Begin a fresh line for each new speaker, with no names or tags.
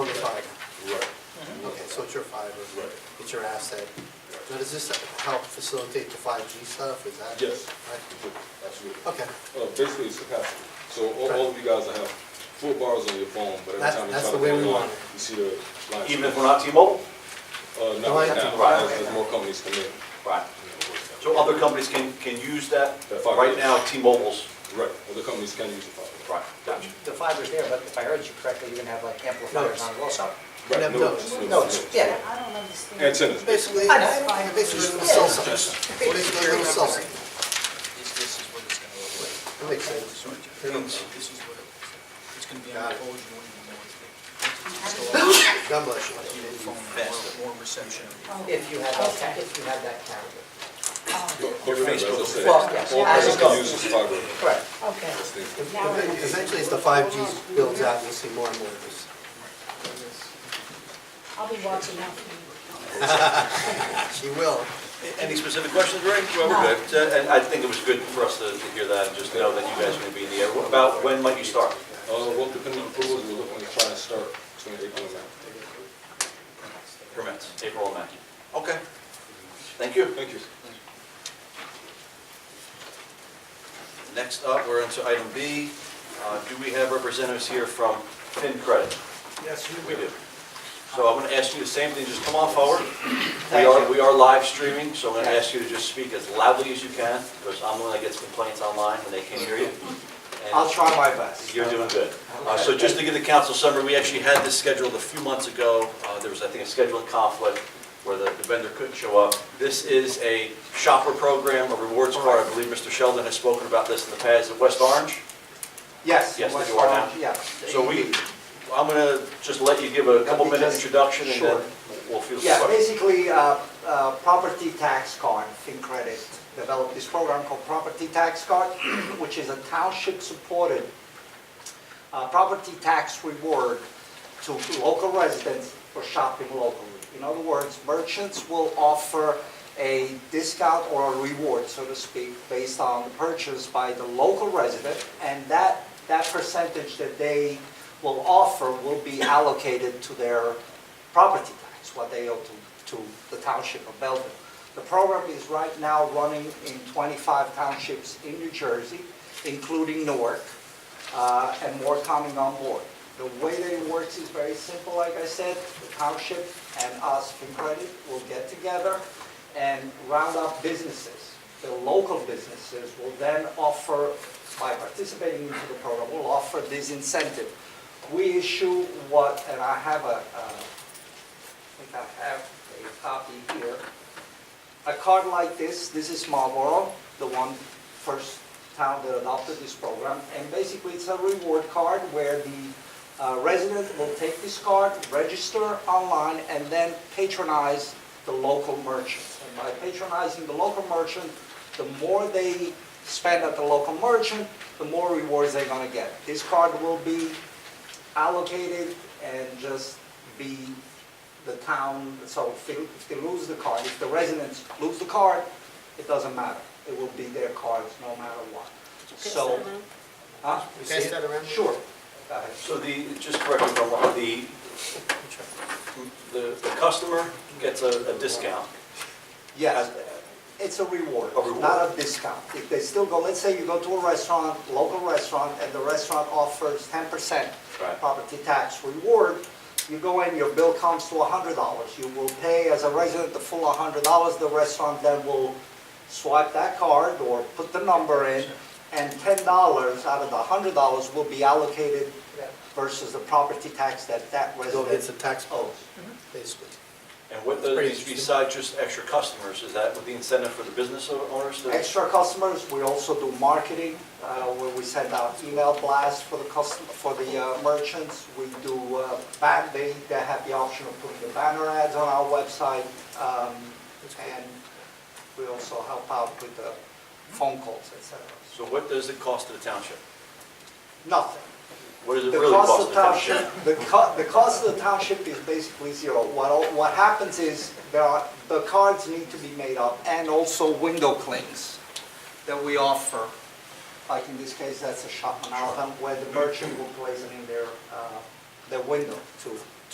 it's your fiber.
Right.
It's your asset.
Right.
Now, does this help facilitate the five G stuff, is that?
Yes.
Right.
Absolutely.
Okay,
Uh, basically, it's capacity. So all, all of you guys will have full bars on your phone, but every
That's-
time you
that's
try
the
to
way we
go online,
want it.
you see the line.
Even if we're not T-Mobile?
Uh,
No, I
not
have to
now,
buy
as,
it.
as more companies come in.
Right. So other companies can, can use that?
That fiber.
Right now, T-Mobile's,
Right, other companies can use the fiber.
right, gotcha.
The fiber's there, but if I heard you correctly, you're gonna have like amplifiers on it
No,
also.
Right,
no,
it's-
No, it's, yeah,
I don't understand.
Antennas.
basically,
I know.
basically a little cell site. What is a little cell site?
This, this is what it's gonna look like.
That makes sense.
Sorry, Jeff. This is what it looks like. It's gonna be on
Got it.
hold, you won't even know it's there.
God bless you.
It's gonna go on phone, more, more reception.
if you have that, if you have that carrier.
But- but remember, as I said, all
Well, yes.
companies can use this fiber.
Correct.
Okay.
That's the-
Now I understand.
Essentially, as the five G builds out, you'll see more and more of this.
I'll be watching out for
She will.
Any specific questions, Ray? Well,
No.
we're good. Uh, And I think it was good for us to to hear that and just know that you guys are gonna be in the air. What About when might you start?
Uh, well, depending on approvals, we're looking to try and start between April and May.
Permits. April and May. Okay. Thank you.
Thank you.
Next up, we're into item B. Uh, Do we have representatives here from FinCredit?
Yes, you
We
will.
do. So I'm going to ask you the same thing, just come on forward. We are, we are live streaming, so I'm going to ask you to just speak as loudly as you can, because I'm the one that gets complaints online when they can't hear you. And
I'll try my best.
You're doing good. Uh, So just to give the council summary, we actually had this scheduled a few months ago. Uh, There was, I think, a scheduling conflict where the the vendor couldn't show up. This is a shopper program, a rewards card. I believe Mr. Sheldon has spoken about this in the past at West Orange.
Yes.
Yes,
West
you are now.
Orange, Yes.
So we, I'm going to just let you give a couple
Let me
minute
just-
introduction and then
sure.
we'll feel.
Yeah, basically, uh, uh, property tax card, FinCredit developed this program called Property Tax Card, which is a township-supported uh, property tax reward to local residents for shopping locally. In other words, merchants will offer a discount or a reward, so to speak, based on the purchase by the local resident, and that, that percentage that they will offer will be allocated to their property tax, what they owe to, to the township of Belleville. The program is right now running in 25 townships in New Jersey, including Newark uh, and more coming on board. The way that it works is very simple, like I said, the township and us, FinCredit, will get together and round up businesses. The local businesses will then offer, by participating into the program, will offer this incentive. We issue what, and I have a, uh, I think I have a copy here. A card like this, this is Marlboro, the one first town that adopted this program. And basically, it's a reward card where the uh, resident will take this card, register online, and then patronize the local merchant. And by patronizing the local merchant, the more they spend at the local merchant, the more rewards they're gonna get. This card will be allocated and just be the town, so if they, if they lose the card, if the residents lose the card, it doesn't matter. It will be their cards no matter what. So, huh?
You pass that around?
Sure. Go ahead.
So the, just correct me if I'm wrong, the, the the customer gets a a discount.
Yes, uh, it's a reward,
A reward.
not a discount. If they still go, let's say you go to a restaurant, local restaurant, and the restaurant offers ten percent
Right.
property tax reward, you go in, your bill comes to hundred dollars. You will pay as a resident the full hundred dollars, the restaurant then will swipe that card or put the number in, and ten dollars out of the hundred dollars will be allocated versus the property tax that that
So it's a
resident
tax bill,
owes.
basically.
And what
That's pretty
the,
interesting.
besides just extra customers, is that with the incentive for the business owners to?
extra customers. We also do marketing, uh, where we send out email blasts for the custom, for the uh, merchants. We do, uh, ban- they, they have the option of putting the banner ads on our website. um, And we also help out with the phone calls, et cetera.
So what does it cost to the township?
Nothing.
What does it
The
really
cost
cost
of
the township?
township, the co, the cost of the township is basically zero. What, what happens is, there are, the cards need to be made up, and also window clings that we offer. Like in this case, that's a shop on Alton, where the merchant will place it in their, uh, their window to